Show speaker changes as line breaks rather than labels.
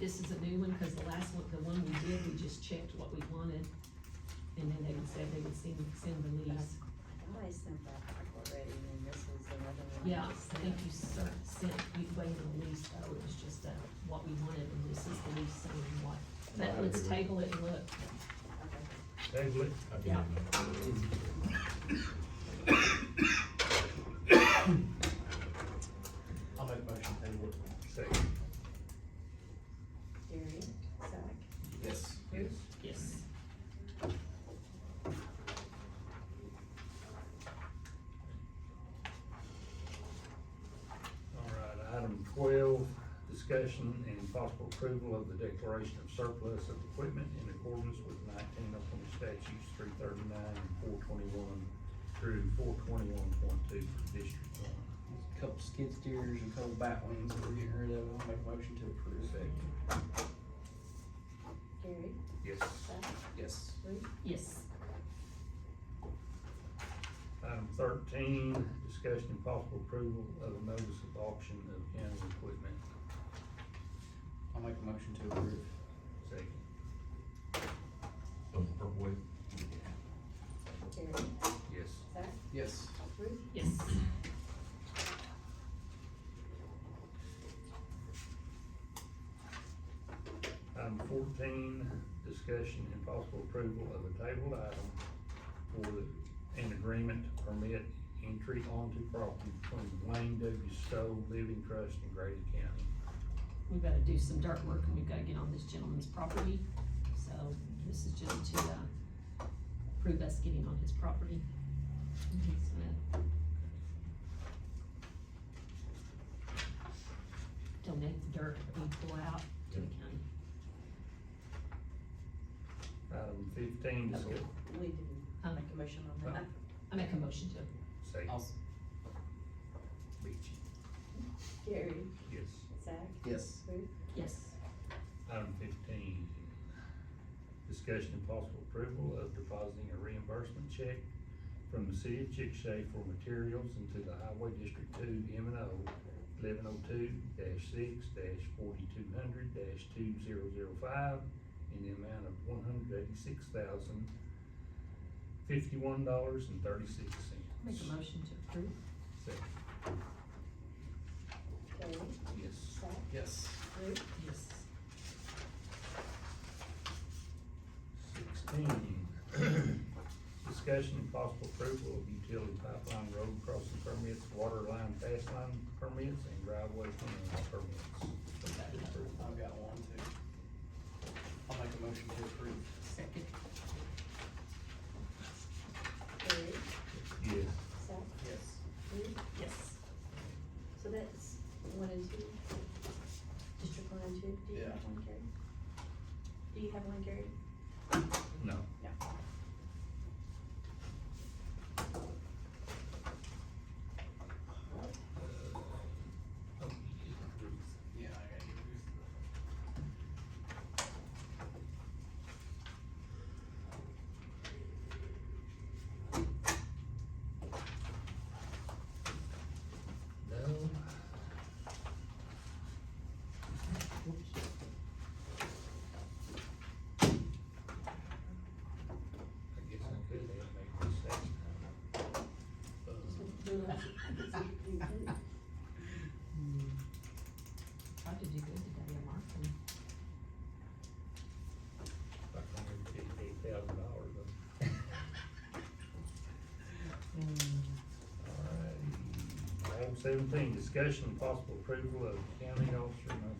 this is a new one, cause the last one, the one we did, we just checked what we wanted. And then they said they would send, send the lease.
I sent that back already, and this is another one.
Yeah, I think you sent, sent, you waited on the lease though, it was just, uh, what we wanted, and this is the lease saying what. But let's table it and look.
Table it.
Yeah.
I'll make a motion, table it.
Second.
Gary, Zach,
Yes.
Bruce,
Yes.
All right, item twelve, discussion and possible approval of the declaration of surplus of equipment in accordance with nineteen Oklahoma statutes three thirty-nine and four twenty-one through four twenty-one point two for District One.
Couple skid steers and couple bat wings that we're getting rid of, I'll make a motion to approve.
Gary,
Yes.
Zach,
Yes.
Bruce,
Yes.
Item thirteen, discussion and possible approval of a notice of auction of county equipment.
I'll make a motion to approve.
Second.
Gary,
Yes.
Zach,
Yes.
Bruce,
Yes.
Item fourteen, discussion and possible approval of a tabled item for the- an agreement to permit entry onto property between Wayne W. Stowe Living Trust and Grady County.
We've gotta do some dirt work, and we've gotta get on this gentleman's property, so this is just to, uh, prove us getting on his property. So, Donate the dirt that we pull out to the county.
Item fifteen, discuss,
we didn't
Um,
make a motion on that.
I make a motion to,
say,
I'll,
beach,
Gary,
yes.
Zach,
yes.
Bruce,
yes.
Item fifteen, discussion and possible approval of depositing a reimbursement check from the city of Chickasha for materials into the Highway District Two M and O eleven oh two six forty-two hundred two zero zero five in the amount of one hundred eighty-six thousand fifty-one dollars and thirty-six cents.
Make a motion to approve.
Second,
Gary,
yes.
Zach,
Yes.
Bruce,
Yes.
Sixteen, discussion and possible approval of utility pipeline road crossing permits, water line fast line permits, and driveway cleaning permits.
We've got the other
I've got one too. I'll make a motion to approve.
Second.
Gary,
Yes.
Zach,
Yes.
Bruce,
Yes.
so that's one and two, district one and two, do you have
Yeah.
one, Gary? Do you have one, Gary?
No.
No.
Yeah, I gotta get Ruth.
No. Whoops. I guess I could have made Uh, this second time.
Tried to do good today, I'm marking.
About hundred and fifty-eight thousand dollars, though.
Mm.
Alright, item seventeen, discussion and possible approval of county officer no